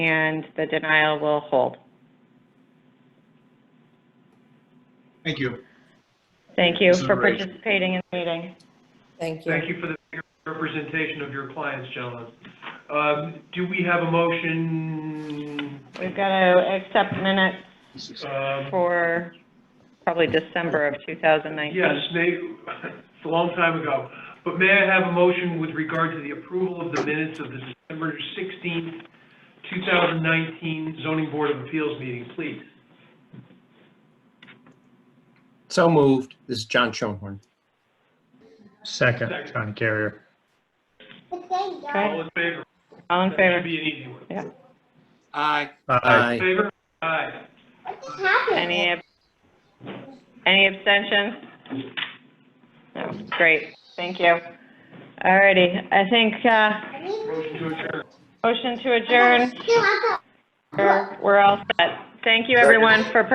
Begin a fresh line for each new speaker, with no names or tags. and the denial will hold.
Thank you.
Thank you for
Consideration.
participating in the meeting.
Thank you.
Thank you for the representation of your clients, gentlemen. Um, Do we have a motion
We've got to accept minutes
um,
for probably December of 2019.
Yes, may, it's a long time ago, but may I have a motion with regard to the approval of the minutes of the December 16th, 2019 zoning board of appeals meeting, please?
So moved. This is John Schoenhorn.
Second,
Second.
John Carrier.
Okay,
All in favor?
all in
That should
favor?
be an easy one.
Aye.
Aye.
Favor? Aye.
Any, ab- any abstentions? No, great, thank you. All righty, I think, uh,
Motion to adjourn.
motion to adjourn, We're- we're all set. Thank you, everyone, for